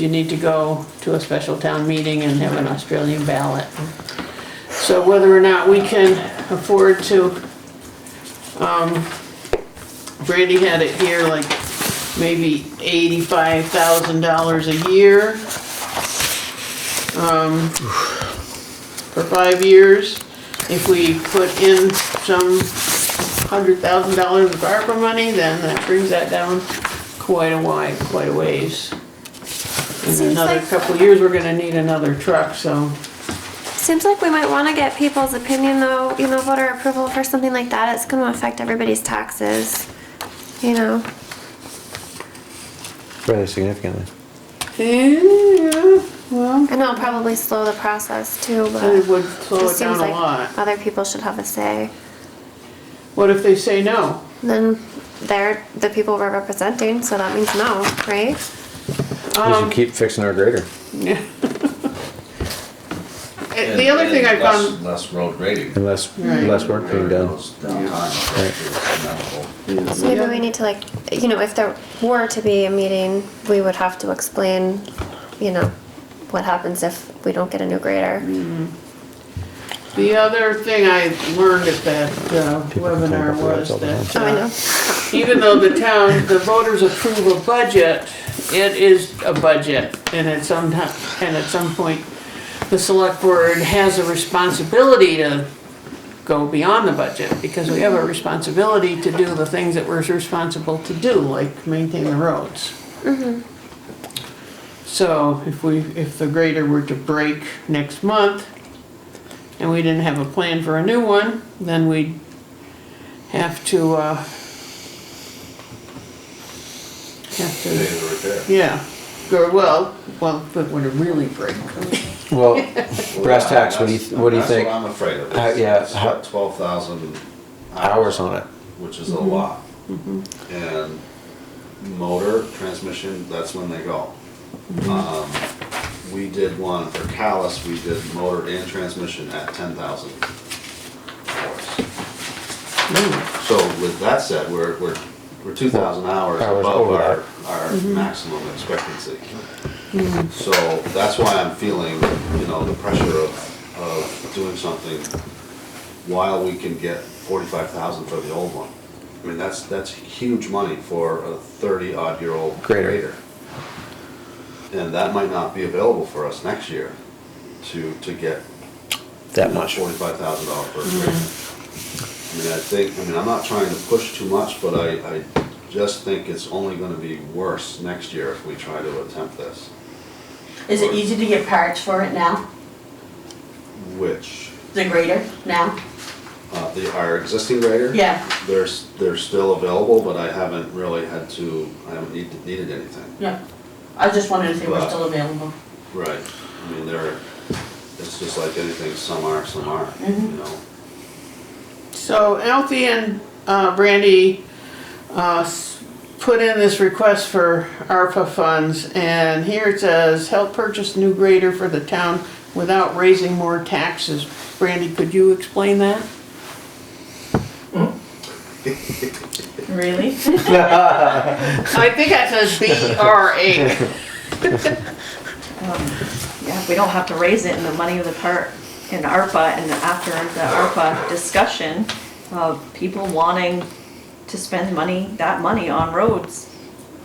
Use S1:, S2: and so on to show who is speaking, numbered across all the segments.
S1: you need to go to a special town meeting and have an Australian ballot. So whether or not we can afford to, um, Brandy had it here like maybe eighty-five thousand dollars a year. Um, for five years, if we put in some hundred thousand dollars of ARPA money, then that brings that down quite a while, quite a ways. In
S2: Seems
S1: another
S2: like-
S1: couple of years, we're gonna need another truck, so.
S2: Seems like we might want to get people's opinion though, you know, voter approval for something like that. It's going to affect everybody's taxes, you know.
S3: Really significantly.
S1: Yeah, well,
S2: And it'll probably slow the process too, but
S1: it would slow it
S2: just
S1: down
S2: seems
S1: a
S2: like
S1: lot.
S2: other people should have a say.
S1: What if they say no?
S2: Then they're the people we're representing, so that means no, right?
S3: We
S4: Um,
S1: Um,
S3: should keep fixing our grader.
S1: Yeah. Eh,
S5: And-
S1: The other
S5: and
S1: thing I
S5: less-
S1: found,
S5: Less road grading.
S3: Unless,
S1: Right.
S3: less work being done.
S5: Those downtimes, that's amenable.
S2: So maybe we need to like, you know, if there were to be a meeting, we would have to explain, you know, what happens if we don't get a new grader.
S1: Mm. the other thing I learned at that uh,
S3: People complain about
S1: webinar
S3: the
S1: was
S3: roads all the
S1: that.
S2: Oh, I
S1: uh,
S2: know.
S1: even though the town, the voters approve a budget, it is a budget, and at some time, and at some point, the select board has a responsibility to go beyond the budget, because we have a responsibility to do the things that we're responsible to do, like maintain the roads. So if we, if the grader were to break next month, and we didn't have a plan for a new one, then we'd have to, uh, have
S5: They
S1: to,
S5: do the repair.
S1: yeah, go, well, well, if it were to really break.
S3: Well, brass
S5: Well,
S3: tacks, what do
S5: that's-
S3: you, what do you
S5: that's
S3: think?
S5: what I'm afraid of.
S3: How-
S5: It's-
S3: yeah,
S5: It's
S3: how-
S5: about twelve thousand
S3: Hours on it.
S5: Which is a lot. And motor, transmission, that's when they go. Um, We did one for Callis, we did motor and transmission at ten thousand hours. So with that said, we're, we're, we're two thousand hours
S3: Hours
S5: above
S3: over
S5: our, our maximum expectancy. So that's why I'm feeling, you know, the pressure of, of doing something while we can get forty-five thousand for the old one. I mean, that's, that's huge money for a thirty-odd-year-old
S3: Grader.
S5: grader. And that might not be available for us next year to, to get
S3: That much.
S5: Forty-five thousand dollar per grader. I mean, I think, I mean, I'm not trying to push too much, but I, I just think it's only gonna be worse next year if we try to attempt this.
S6: Is it easy to get parts for it now?
S5: Which,
S6: The grader now?
S5: uh, the, our existing grader?
S6: Yeah,
S5: They're, s- they're still available, but I haven't really had to, I haven't need- needed anything.
S6: yeah. I just wanted to see what's still available.
S5: Right, I mean, they're, it's just like anything, some are, some aren't, you know?
S1: So Alfie and uh, Brandy uh, s- put in this request for ARPA funds, and here it says, help purchase new grader for the town without raising more taxes. Brandy, could you explain that?
S6: Really?
S1: I think that says B-R-A.
S4: Um, Yeah, we don't have to raise it in the money of the part in ARPA and after the ARPA discussion of people wanting to spend money, that money on roads.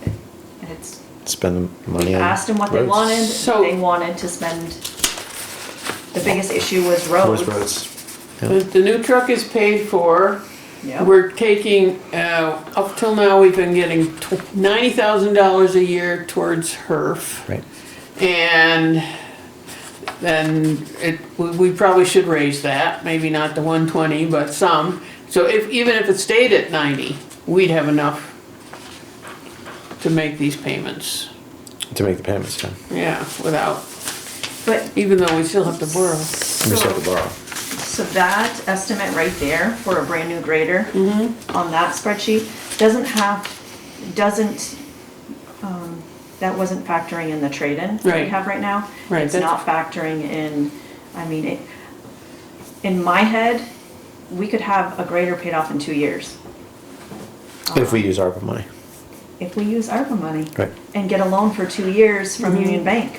S4: And it's,
S3: Spend the money
S4: we
S3: on.
S4: asked them what they
S3: roads.
S4: wanted,
S1: So-
S4: they wanted to spend, the biggest issue was
S3: Most
S4: roads.
S3: roads.
S1: The the new truck is paid for.
S4: Yeah,
S1: We're taking, uh, up till now, we've been getting tw- $90,000 a year towards HERF.
S3: Right.
S1: And then it, we- we probably should raise that, maybe not the one twenty, but some. So if, even if it stayed at ninety, we'd have enough to make these payments,
S3: To make the payments, yeah.
S1: yeah, without,
S4: but,
S1: even though we still have to borrow.
S3: We just have
S4: so,
S3: to borrow.
S4: so that estimate right there for a brand new grader
S1: Mm-hmm.
S4: on that spreadsheet doesn't have, doesn't um, that wasn't factoring in the trade-in that
S1: Right.
S4: we have right now.
S1: Right,
S4: It's
S1: that's-
S4: not factoring in, I mean, it, in my head, we could have a grader paid off in two years.
S3: If we use ARPA money.
S4: if we use ARPA money
S3: Right.
S1: Mm-hmm.
S4: and get a loan for two years from Union Bank.